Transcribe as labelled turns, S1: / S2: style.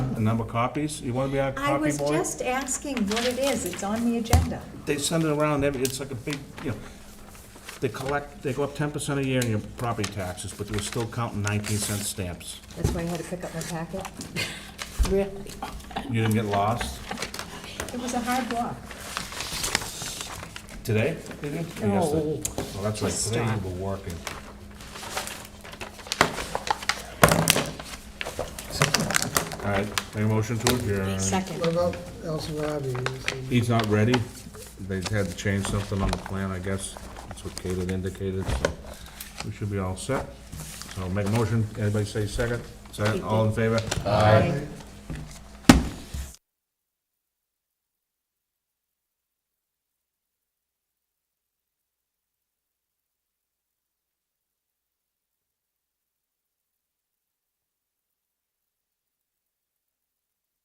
S1: number copies? You wanna be our
S2: I
S1: copy
S2: was
S1: boy?
S2: just asking what it is, it's on the agenda.
S1: They send it around, every- it's like a big, you know, they collect, they go up ten percent a year in your property taxes, but they're still counting nineteen cent stamps.
S2: That's why I had to pick up my packet.
S3: Really?
S1: You didn't get lost
S2: It was a hard walk.
S1: today? Oh. they did? Or
S3: No.
S1: yesterday? Well, that's right,
S3: Just
S1: today
S3: stop.
S1: you were working. All right, make a motion to adjourn.
S3: Second.
S4: What about El Sarabi? Is he-
S1: He's not ready. They had to change something on the plan, I guess. That's what Kate had indicated, so we should be all set. So make a motion. Anybody say second? Second, all in favor?
S2: Aye.